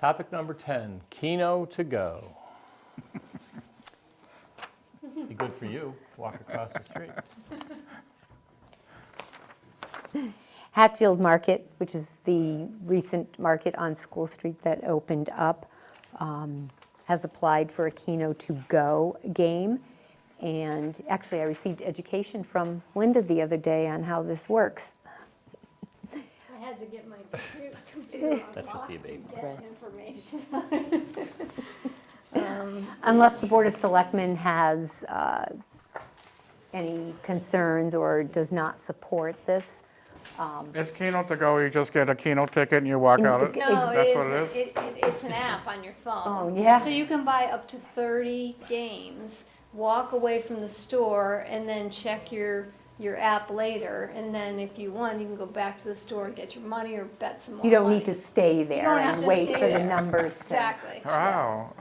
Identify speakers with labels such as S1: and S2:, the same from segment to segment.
S1: Topic number 10, Keno to go. Be good for you, walk across the street.
S2: Hatfield Market, which is the recent market on School Street that opened up, um, has applied for a Keno to Go game. And actually, I received education from Linda the other day on how this works.
S3: I had to get my compu- computer
S1: That's just
S3: unlocked
S1: the
S3: to
S1: abatement.
S3: get information.
S2: Unless the Board of Selectmen has uh, any concerns or does not support this.
S4: It's Keno to go, you just get a Keno ticket and you walk
S2: And
S4: out.
S2: you
S4: it-
S2: get-
S3: No,
S4: That's what it
S3: it
S4: is?
S3: is, it- it- it's an app on your phone.
S2: Oh, yeah.
S3: So you can buy up to 30 games, walk away from the store, and then check your, your app later. And then if you won, you can go back to the store and get your money or bet some more
S2: You don't
S3: money.
S2: need to stay there
S3: don't have
S2: and
S3: to
S2: wait
S3: stay
S2: for the
S3: there.
S2: numbers to.
S3: Exactly.
S4: Wow,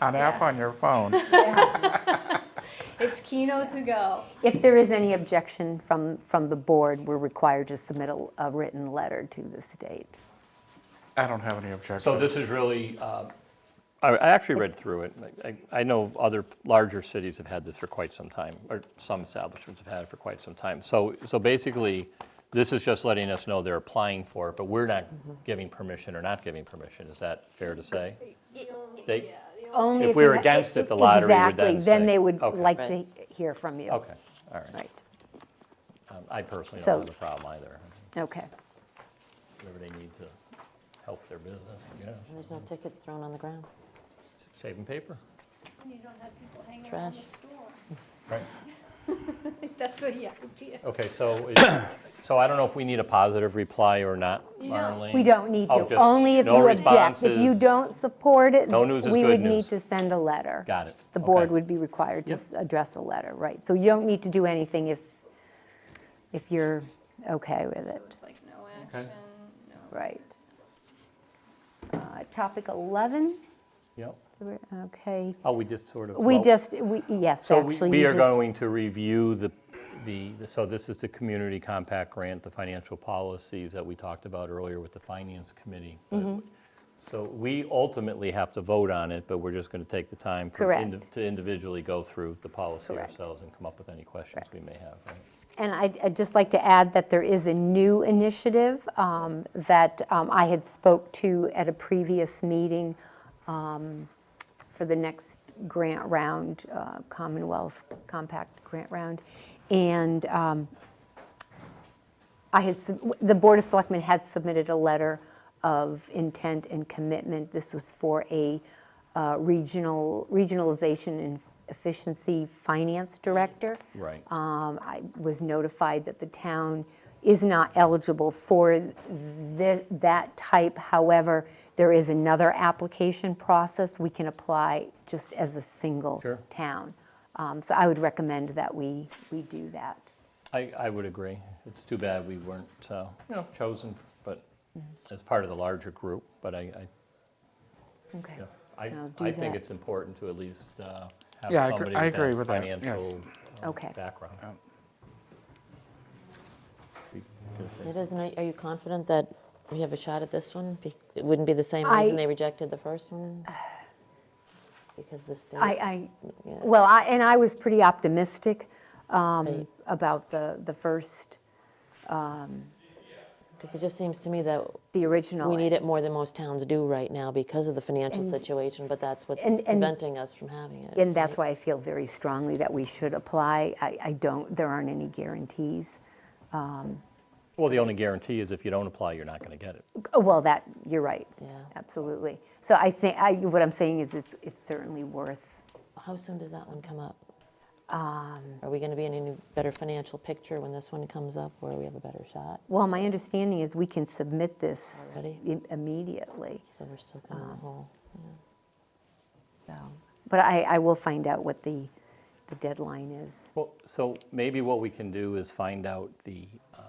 S4: an app
S3: Yeah.
S4: on your phone.
S3: It's Keno to go.
S2: If there is any objection from, from the board, we're required to submit a, a written letter to the state.
S4: I don't have any objection.
S1: So this is really, uh, I I actually read through it. I- I know other larger cities have had this for quite some time, or some establishments have had it for quite some time. So, so basically, this is just letting us know they're applying for it, but we're not giving permission or not giving permission. Is that fair to say? They,
S2: Only
S1: If
S2: if
S1: we
S2: you
S1: were
S2: ha-
S1: against it, the lottery would
S2: Exactly,
S1: then
S2: then
S1: say-
S2: they would
S1: Okay.
S2: like to hear from you.
S1: okay, all right.
S2: Right,
S1: Um, I personally
S2: So-
S1: don't have a problem either.
S2: okay.
S1: Whatever they need to help their business, I guess.
S5: There's no tickets thrown on the ground.
S1: Saving paper.
S3: You don't have people hanging around the
S5: Trash.
S3: store.
S1: Right.
S3: That's the idea.
S1: Okay, so, is- so I don't know if we need a positive reply or not,
S3: No.
S1: Marlene?
S2: We don't need
S1: Oh,
S2: to,
S1: just
S2: only if
S1: no
S2: you object. If you
S1: responses.
S2: don't support it,
S1: No news is
S2: we
S1: good
S2: would need
S1: news.
S2: to send a letter.
S1: Got it.
S2: The board
S1: Okay.
S2: would be required to
S1: Yep.
S2: s- address a letter, right? So you don't need to do anything if, if you're okay with
S3: So
S2: it,
S3: it's like no action, no.
S2: right? Uh, Topic 11,
S1: Yep.
S2: okay.
S1: Oh, we just sort of.
S2: We
S1: well,
S2: just, we, yes,
S1: So we-
S2: actually.
S1: we
S2: you
S1: are
S2: just-
S1: going to review the, the, so this is the community compact grant, the financial policies that we talked about earlier with the finance committee.
S2: Mm-hmm.
S1: So we ultimately have to vote on it, but we're just going to take the time. for indi-
S2: Correct.
S1: To individually go through the policy
S2: Correct.
S1: ourselves and come up with any questions we may have. right?
S2: And I'd I'd just like to add that there is a new initiative um, that um, I had spoke to at a previous meeting um, for the next grant round, uh, Commonwealth Compact Grant Round. And um, I had, sub- the Board of Selectmen had submitted a letter of intent and commitment. This was for a uh, regional, regionalization and efficiency finance director.
S1: Right.
S2: Um, I was notified that the town is not eligible for thi- that type. However, there is another application process. We can apply just as a single
S1: Sure.
S2: town. Um, So I would recommend that we, we do that.
S1: I, I would agree. It's too bad we weren't, uh, you know, chosen, but
S2: Mm-hmm.
S1: as part of the larger group, but I, I,
S2: Okay.
S1: yeah, I,
S2: Now do
S1: I think
S2: that.
S1: it's important to at least uh, have
S4: Yeah, I agree-
S1: somebody
S4: I agree
S1: with
S4: with
S1: that
S4: that, yes.
S1: financial uh,
S2: Okay.
S1: background.
S4: Yeah.
S1: We can say-
S5: It isn't, are are you confident that we have a shot at this one? Be- It wouldn't be the same
S2: I-
S5: reason they rejected the first one? Because the state?
S2: I, I,
S5: Yeah.
S2: well, I, and I was pretty optimistic um,
S5: Right.
S2: about the, the first,
S5: Because it just seems to me that
S2: the original.
S5: we need it more than most towns do right now because of the financial
S2: And-
S5: situation, but that's
S2: and-
S5: what's
S2: and-
S5: preventing us from having it.
S2: And that's why I feel very strongly that we should apply. I, I don't, there aren't any guarantees.
S1: Well, the only guarantee is if you don't apply, you're not going to get it.
S2: Oh, Well, that, you're right.
S5: Yeah.
S2: Absolutely. So I think, I, what I'm saying is it's, it's certainly worth,
S5: How soon does that one come up?
S2: Um,
S5: Are we going to be in any better financial picture when this one comes up where we have a better shot?
S2: well, my understanding is we can submit this
S5: Already?
S2: im- immediately.
S5: So we're still kind of
S2: um,
S5: in the hole.
S2: So, But I, I will find out what the, the deadline is.
S1: Well, so maybe what we can do is find out the, um,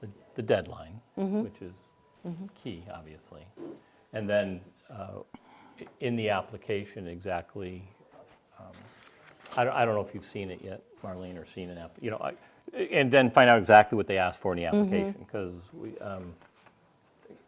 S1: the- the deadline, which is key, obviously. And then uh, i- in the application exactly, um, I don't, I don't know if you've seen it yet, Marlene, or seen an app, you know, I- and then find out exactly what they asked for in the application. Because we, um,